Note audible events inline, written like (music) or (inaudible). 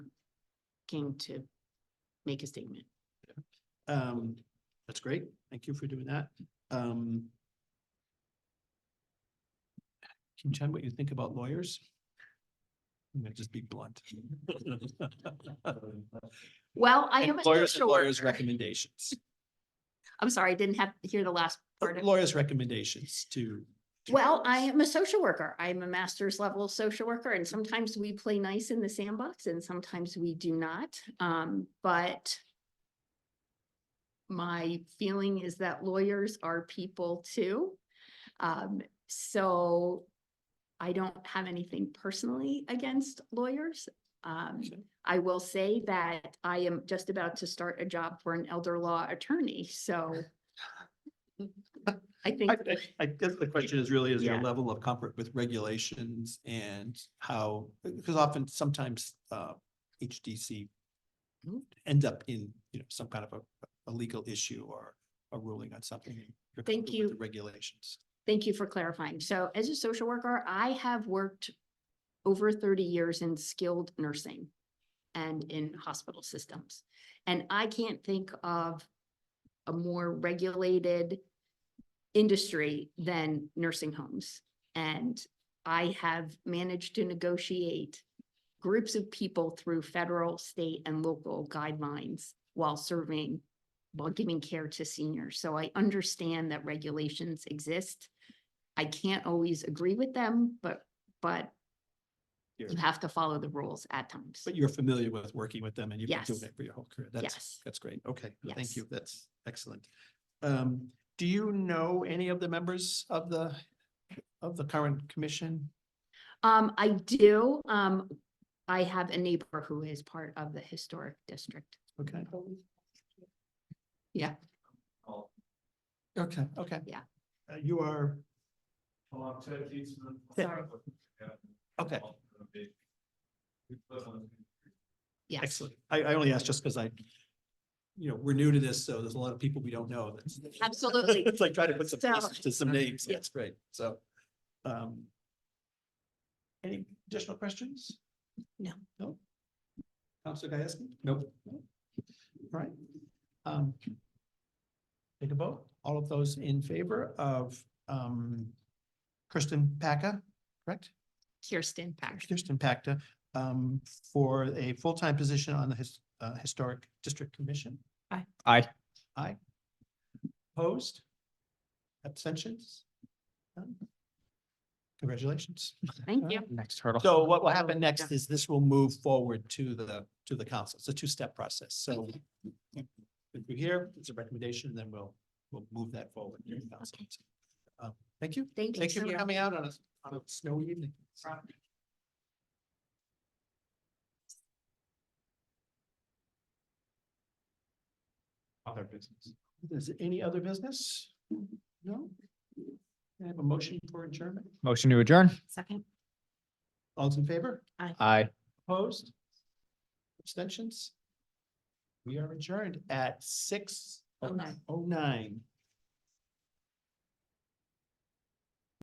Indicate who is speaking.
Speaker 1: asking to make a statement.
Speaker 2: Um, that's great. Thank you for doing that. Um. Can you tell me what you think about lawyers? I'm gonna just be
Speaker 1: (laughs)
Speaker 2: blunt.
Speaker 1: Well, I am still
Speaker 2: Lawyers, and
Speaker 1: sure.
Speaker 2: lawyers' recommendations,
Speaker 1: I'm sorry, I didn't have, hear the last part. of-
Speaker 2: lawyers' recommendations to. to
Speaker 1: Well, I
Speaker 2: lawyers.
Speaker 1: am a social worker. I'm a master's level social worker and sometimes we play nice in the sandbox and sometimes we do not. Um, but my feeling is that lawyers are people too. Um, so I don't have anything personally against lawyers. Um,
Speaker 2: Sure.
Speaker 1: I will say that I am just about to start a job for an elder law attorney, so I think.
Speaker 2: I, I- I guess the question is really is your
Speaker 1: Yeah.
Speaker 2: level of comfort with regulations and how, because often sometimes uh HDC
Speaker 1: Mhm.
Speaker 2: ends up in, you know, some kind of a, a legal issue or a ruling on something. and you're
Speaker 1: Thank
Speaker 2: comfortable with
Speaker 1: you.
Speaker 2: the Regulations.
Speaker 1: Thank you for clarifying. So as a social worker, I have worked over thirty years in skilled nursing and in hospital systems. And I can't think of a more regulated industry than nursing homes. And I have managed to negotiate groups of people through federal, state, and local guidelines while serving, while giving care to seniors. So I understand that regulations exist. I can't always agree with them, but, but
Speaker 2: You're-
Speaker 1: you have to follow the rules at times.
Speaker 2: But you're familiar with working with them and you've been doing
Speaker 1: Yes.
Speaker 2: it for your whole career. That's,
Speaker 1: Yes.
Speaker 2: that's great. Okay,
Speaker 1: Yes.
Speaker 2: thank you. That's excellent. Um, do you know any of the members of the, of the current commission?
Speaker 1: Um, I do, um, I have a neighbor who is part of the historic district.
Speaker 2: Okay.
Speaker 1: Yeah.
Speaker 2: Oh. Okay, okay.
Speaker 1: Yeah.
Speaker 2: Uh, You are,
Speaker 3: Along Ted Keatsman.
Speaker 1: Yeah. Sorry.
Speaker 2: okay,
Speaker 1: Yes.
Speaker 2: excellent. I, I only asked just because I, you know, we're new to this, so there's a lot of people we don't know. That's-
Speaker 1: Absolutely.
Speaker 2: (laughs) It's like trying to put some
Speaker 1: So-
Speaker 2: faces to some names.
Speaker 1: Yeah.
Speaker 2: That's great. So. um, Any additional questions?
Speaker 1: No.
Speaker 2: No? Counselor Gieske? Nope. All Right. Um, Take a vote. All of those in favor of um, Kristen Packer, correct?
Speaker 1: Kirsten Pack.
Speaker 2: Kirsten Pacta, um, for a full-time position on the his, uh, Historic District Commission.
Speaker 1: Aye.
Speaker 3: Aye.
Speaker 2: Aye. Opposed? Abstentions? None? Congratulations.
Speaker 1: Thank you.
Speaker 3: Next hurdle.
Speaker 2: So what will happen
Speaker 1: Oh,
Speaker 2: next is this will move forward to the, to the council. It's a two-step process, so if we hear, it's a recommendation, then we'll, we'll move that forward. to the council.
Speaker 1: Okay.
Speaker 2: Um, Thank you.
Speaker 1: Thank you.
Speaker 2: Thank you
Speaker 1: so
Speaker 2: for
Speaker 1: much.
Speaker 2: coming out on a, on a snowy evening.
Speaker 3: Other business.
Speaker 2: Is there any other business? No? Can I have a motion for adjournment.
Speaker 3: Motion to adjourn.
Speaker 1: Second.
Speaker 2: All's in favor?
Speaker 3: Aye.
Speaker 2: Opposed? Abstentions? We are adjourned at six oh nine.